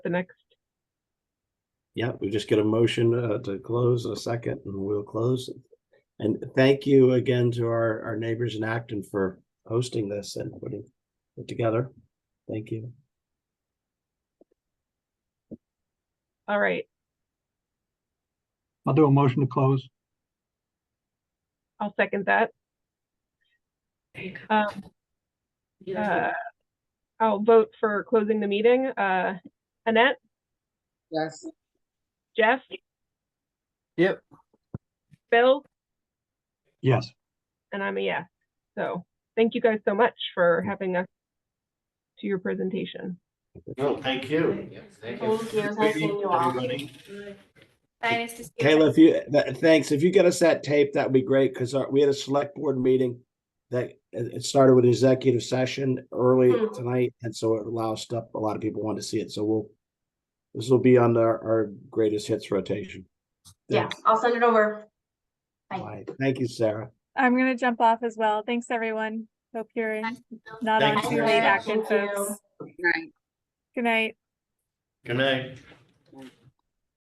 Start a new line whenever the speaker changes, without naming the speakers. the next?
Yeah, we just get a motion uh, to close a second and we'll close. And thank you again to our, our neighbors in Acton for hosting this and putting it together. Thank you.
All right,
I'll do a motion to close.
I'll second that. Um, uh, I'll vote for closing the meeting. Uh, Annette,
Yes.
Jeff?
Yep.
Bill,
Yes.
and I'm a yes. So thank you guys so much for having us to your presentation.
No, thank you. Thank you.
Thank you. Nice seeing you all.
Everybody.
Bye, nice to see you.
Kayla, if you, th- thanks. If you get us that tape, that'd be great because we had a select board meeting that it it started with an executive session early
Hmm.
tonight. And so it loused up. A lot of people want to see it. So we'll, this will be on our, our greatest hits rotation.
Yeah, I'll send it over. Bye.
All right. Thank you, Sarah.
I'm gonna jump off as well. Thanks, everyone. Hope you're in- not
Thank
on
you.
too late
Thank
acting,
you.
folks. Good night.
Good night.